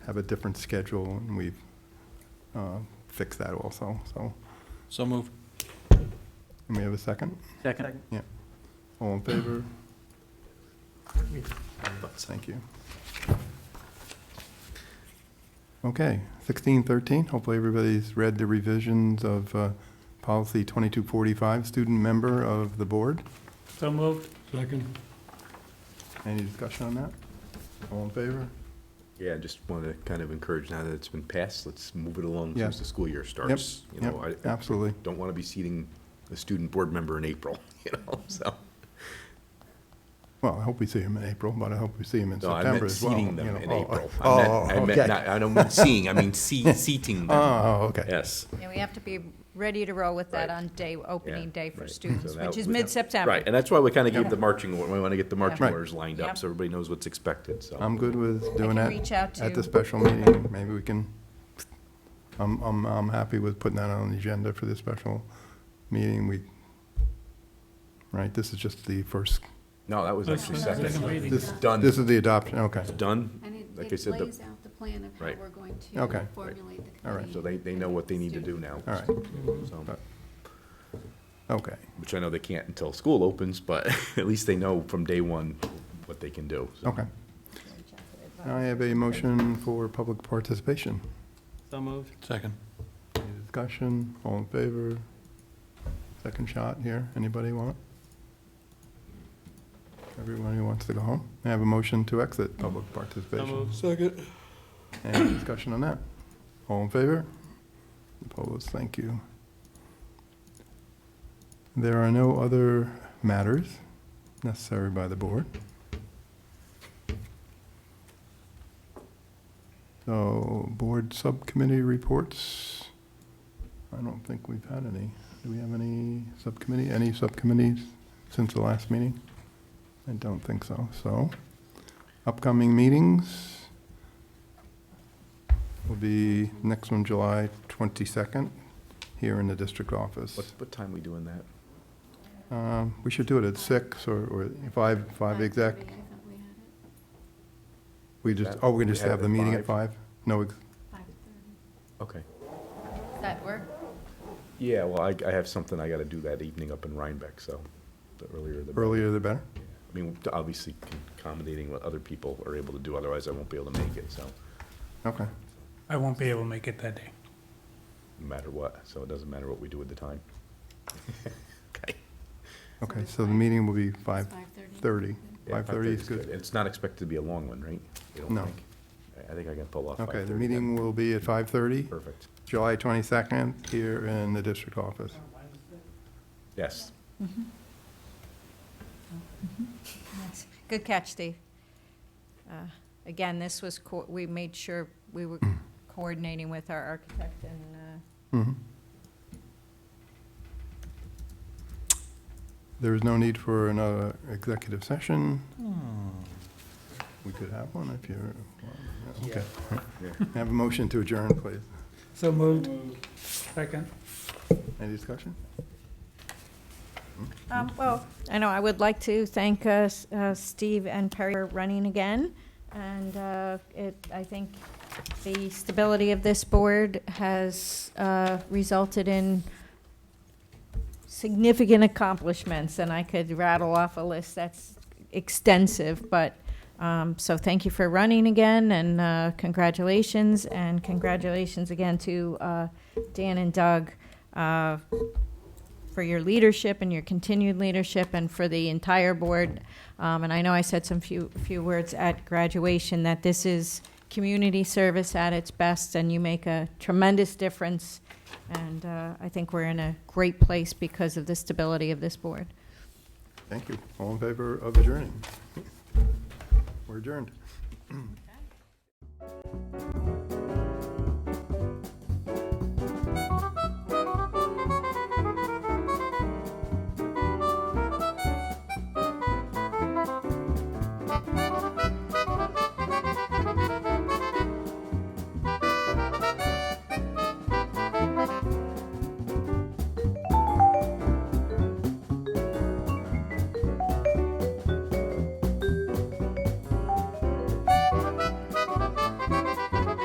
have a different schedule, and we've uh, fixed that also, so. So moved. And we have a second? Second. All in favor? Thank you. Okay, sixteen thirteen, hopefully everybody's read the revisions of uh, policy twenty-two forty-five, student member of the board. So moved. Second. Any discussion on that? All in favor? Yeah, I just want to kind of encourage now that it's been passed, let's move it along Yeah. since the school year starts. You know, I I Absolutely. don't want to be seating a student board member in April, you know, so. Well, I hope we see him in April, but I hope we see him in No, I September meant as well. seating you them know. in Oh, April. I meant- Oh, I meant okay. not- I don't mean seeing, I mean se- seating them. Oh, okay. Yes. Yeah, we have to be ready to roll with that Right. on day, opening Yeah, day for right. So students, that which is would- mid-September. Right, and that's why we kind of Yeah. gave the marching, or- we want to get the marching Right. orders lined Yeah. up, so everybody knows what's expected, so. I'm good with doing can that. reach out At the to- special meeting, maybe we can, I'm, I'm, I'm happy with putting that on the agenda for the special meeting. We, right, this is just the first, No, that was That's actually the second second. reading. this, Done. this is the adoption, okay. It's done, And it- like I it said, the- lays out the plan of Right. how we're going Okay. to Right. formulate the All right. committee. so they, they know what they need to do now. All right, so. okay, which I know they can't until school opens, but at least they know from day one what they can do. so. okay. Now I have a motion for public participation. So moved. Second. Any discussion? All in favor? Second shot here. Anybody want? Everyone who wants to go home? I have a motion to exit public So participation. moved. Second. Any discussion on that? All in favor? Opposed? Thank you. There are no other matters necessary by the board. So, board subcommittee reports, I don't think we've had any. Do we have any subcommittee, any subcommittees since the last meeting? I don't think so. So, upcoming meetings, will be next one, July 22nd, here in the district office. What, what time we doing that? Um, We should do it at six or- or five, five exact. 5:30, I thought we had it. We just, oh, we can just We had have it the at meeting at five. five? No, ex- 5:30. Okay. Does that work? Yeah, well, I, I have something I gotta do that evening up in Rhinebeck, so the earlier the. better. earlier the better? I mean, obviously accommodating what other people are able to do, otherwise I won't be able to make it, so, Okay. I won't be able to make it that day. no matter what, so it doesn't matter what we do with the time. Okay. Okay, so the meeting will be 5:30. 5:30. Yeah, 5:30 is 5:30's good. It's not expected to be a long one, right? You don't No. think? I I think I can pull off. Okay, the 5:30 then. meeting will be at 5:30, Perfect. July 22nd, here in the district office. Yes. Yes. Good catch, Steve. Uh, Again, this was, co- we made sure we were coordinating with our architect and, uh, Mhm. There is no need for another executive session. We could have one if you're, well, yeah, Yeah. okay. Have a motion to adjourn, please. So moved. Second. Any discussion? Um, Well, I know, I would like to thank uh, S- uh, Steve and Perry for running again, and uh, it, I think the stability of this board has uh, resulted in significant accomplishments, and I could rattle off a list that's extensive, but, um, so thank you for running again, and uh, congratulations, and congratulations again to uh, Dan and Doug uh, for your leadership and your continued leadership and for the entire board. Um, and I know I said some few, few words at graduation that this is community service at its best and you make a tremendous difference. And uh, I think we're in a great place because of the stability of this board. Thank you. All in favor of adjourning? We're adjourned.